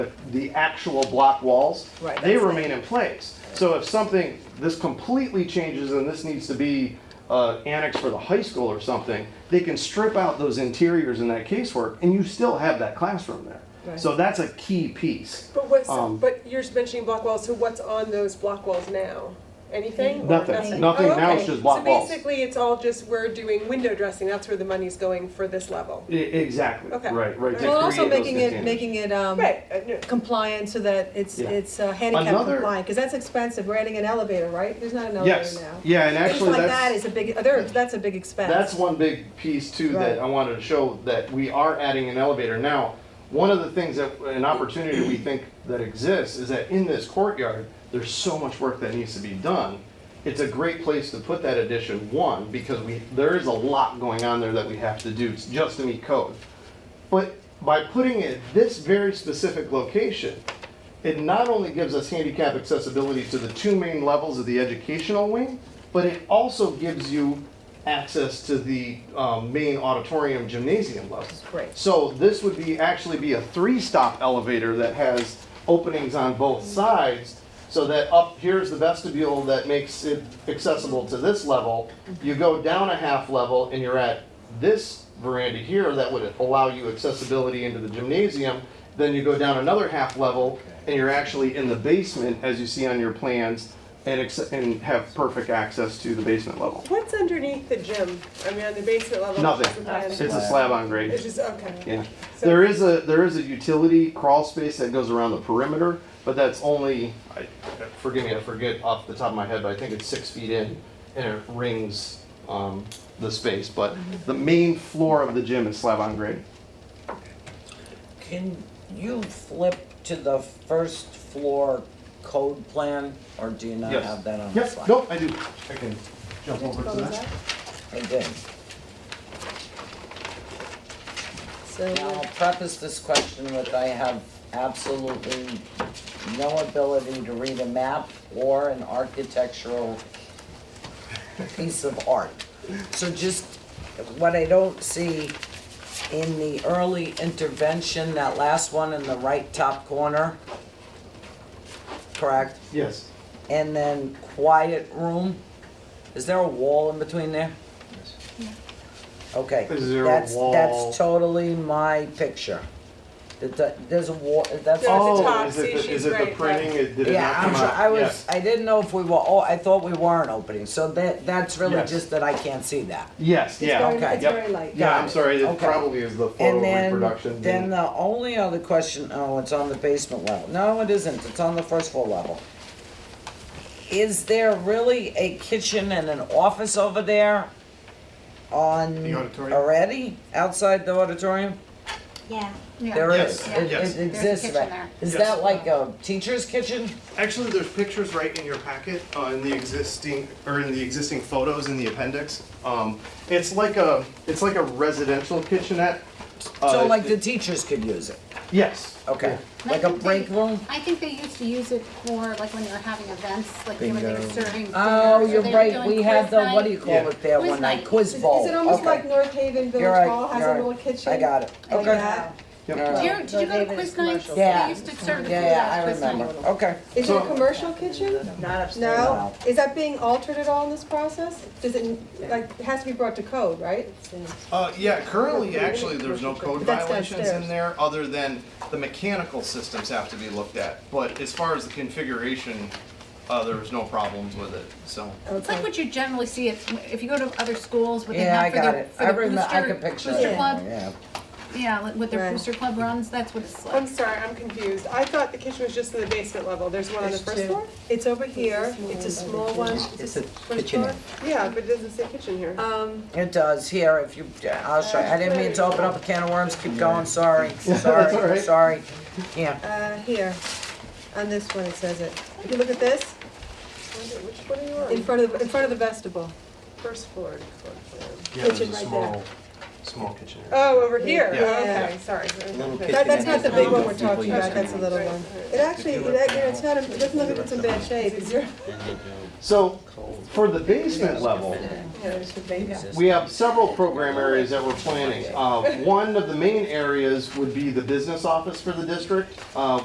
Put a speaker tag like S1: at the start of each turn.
S1: the actual block walls,
S2: Right,
S1: they
S2: that's-
S1: remain in place. So if something, this completely changes and this needs to be uh, annexed for the high school or something, they can strip out those interiors in that casework and you still have that classroom there.
S2: Right.
S1: So that's a key piece.
S3: But what's,
S1: Um,
S3: but you're mentioning block walls, so what's on those block walls now? Anything? or
S1: Nothing. Nothing.
S3: Oh,
S1: Now it's
S3: okay.
S1: just block walls.
S3: So basically, it's all just, we're doing window dressing, that's where the money's going for this level.
S1: E- Exactly,
S3: Okay.
S1: right, right. to
S2: Well,
S1: create
S2: also
S1: those
S2: making it,
S1: containers.
S2: making it, um,
S3: Right, uh, no,
S2: compliant so that it's,
S1: Yeah.
S2: it's uh, handicap
S1: Another-
S2: compliant, because that's expensive, we're adding an elevator, right? There's not an elevator
S1: Yes,
S2: now.
S1: yeah, and
S2: Things
S1: actually
S2: like
S1: that's.
S2: that is a big, there, that's a big expense.
S1: That's one big piece too that
S2: Right.
S1: I wanted to show that we are adding an elevator. Now, one of the things that, an opportunity we think that exists is that in this courtyard, there's so much work that needs to be done. It's a great place to put that addition, one, because we, there is a lot going on there that we have to do just to meet code. But by putting it at this very specific location, it not only gives us handicap accessibility to the two main levels of the educational wing, but it also gives you access to the um, main auditorium gymnasium level.
S2: Great.
S1: So this would be, actually be a three-stop elevator that has openings on both sides, so that up, here's the vestibule that makes it accessible to this level. You go down a half level and you're at this veranda here that would allow you accessibility into the gymnasium. Then you go down another half level and you're actually in the basement, as you see on your plans, and acce- and have perfect access to the basement level.
S3: what's underneath the gym? I mean, on the basement level? what's the
S1: Nothing,
S3: plan?
S1: it's a slab on grade.
S3: It's just, okay.
S1: Yeah,
S3: So-
S1: there is a, there is a utility crawl space that goes around the perimeter, but that's only, I- forgive me, I forget off the top of my head, but I think it's six feet in and it rings um, the space, but the main floor of the gym is slab on grade.
S4: Can you flip to the first floor code plan, or do you not
S1: Yes.
S4: have that on the
S1: Yes,
S4: slide?
S1: no, I do. I can jump over
S2: What was that?
S4: I did.
S2: So,
S4: Now, I'll preface this question with I have absolutely no ability to read a map or an architectural piece of art. So just, what I don't see in the early intervention, that last one in the right top corner, correct?
S1: Yes.
S4: and then quiet room. Is there a wall in between there? Okay.
S1: Is there a
S4: that's-
S1: wall?
S4: That's totally my picture. That- that- There's a wall, that's.
S3: There's a
S1: Oh,
S3: top,
S1: is it
S3: see,
S1: the-
S3: she's
S1: Is it the
S3: right,
S1: printing, it did it
S4: Yeah,
S1: not
S4: I'm
S1: come
S4: sure,
S1: out?
S4: I was,
S1: Yes.
S4: I didn't know if we were, oh, I thought we weren't opening, so that, that's really
S1: Yes.
S4: just that I can't see that.
S1: Yes,
S2: it's very,
S1: yeah,
S4: okay,
S2: it's
S1: yep.
S2: very light.
S1: yeah, I'm
S4: it.
S1: sorry, it
S4: Okay.
S1: probably is the
S4: And
S1: photo
S4: then,
S1: reproduction.
S4: then the only other question, oh, it's on the basement level. No, it isn't, it's on the first floor level. Is there really a kitchen and an office over there on?
S1: The auditorium?
S4: Already, outside the auditorium?
S5: Yeah.
S4: There
S1: Yes,
S4: is,
S5: yeah.
S1: yes.
S4: it, it
S1: There's
S5: a
S4: exists,
S5: kitchen
S4: right?
S5: there.
S4: Is
S1: Yes.
S4: that like a teacher's kitchen?
S1: Actually, there's pictures right in your packet, uh, in the existing, or in the existing photos in the appendix. Um, It's like a, it's like a residential kitchenette.
S4: So
S1: Uh,
S4: like the teachers could use it,
S1: Yes.
S4: okay,
S5: And I
S4: like a
S5: think they-
S4: break room?
S5: I think they used to use it for, like, when they were having events, like, when they were serving. dinner,
S4: Oh,
S5: so
S4: you're
S5: they were
S4: right,
S5: doing
S4: we had
S5: quiz
S4: the, what
S5: night.
S4: do you call it there
S5: Quiz
S4: one night,
S5: night.
S4: quiz
S2: Is
S4: bowl,
S2: is it almost
S4: okay.
S2: like North Haven
S4: You're
S2: Village
S4: right,
S2: Hall has
S4: you're
S2: a
S4: right.
S2: little kitchen?
S4: I got it,
S2: like
S4: okay.
S2: that?
S1: Yep.
S4: All right.
S5: Did you, did you go to
S2: David's
S5: quiz nights?
S2: commercial.
S4: Yeah.
S5: They used to serve the food
S4: Yeah,
S5: at
S4: yeah, I
S5: quiz night.
S4: remember, okay.
S2: Is it a
S1: So-
S2: commercial kitchen?
S6: Not upstairs.
S2: No? Is that being altered at all in this process? Does it, like, it has to be brought to code, right?
S1: Uh, yeah, currently, actually, there's no code
S2: That's
S1: violations in
S2: downstairs.
S1: there, other than the mechanical systems have to be looked at. But as far as the configuration, uh, there was no problems with it, so.
S5: It's like what you generally see, if, if you go to other schools, what they
S4: Yeah, I
S5: have for
S4: got it.
S5: their, for
S4: I
S5: their
S4: remember, I could
S5: booster,
S4: picture it.
S5: booster
S4: now,
S5: club,
S4: Yeah.
S5: yeah, like with
S2: Right.
S5: their booster club runs, that's what it's
S3: I'm
S5: like.
S3: sorry, I'm confused. I thought the kitchen was just in the basement level, there's one on the
S2: There's
S3: first
S2: two.
S3: floor?
S2: It's over here, it's a small one.
S6: It's a
S2: First
S6: kitchenette.
S2: floor.
S3: Yeah, but it doesn't say kitchen here.
S2: Um,
S4: It does, here, if you, I'll show you, I didn't mean to open up a can of worms, keep going, sorry,
S1: That's all
S4: sorry,
S1: right.
S4: sorry. Yeah,
S2: uh, here, on this one it says it. If you look at this,
S3: I wonder Which one are you on?
S2: in front of, in front of the vestibul.
S3: First floor. floor plan.
S2: Yeah, there's a Kitchen right small-
S1: small kitchen area.
S3: Oh, over here,
S2: Yeah.
S3: oh, okay, sorry. Okay.
S2: That, that's not the big one we're talking
S3: Right,
S2: about, that's a little
S3: right,
S2: one.
S3: right.
S2: It actually, it, act- it's not, it doesn't look like it's in bad shape, it's your.
S1: So, for the basement level, we have several program areas that we're planning. Uh, One of the main areas would be the business office for the district. Uh,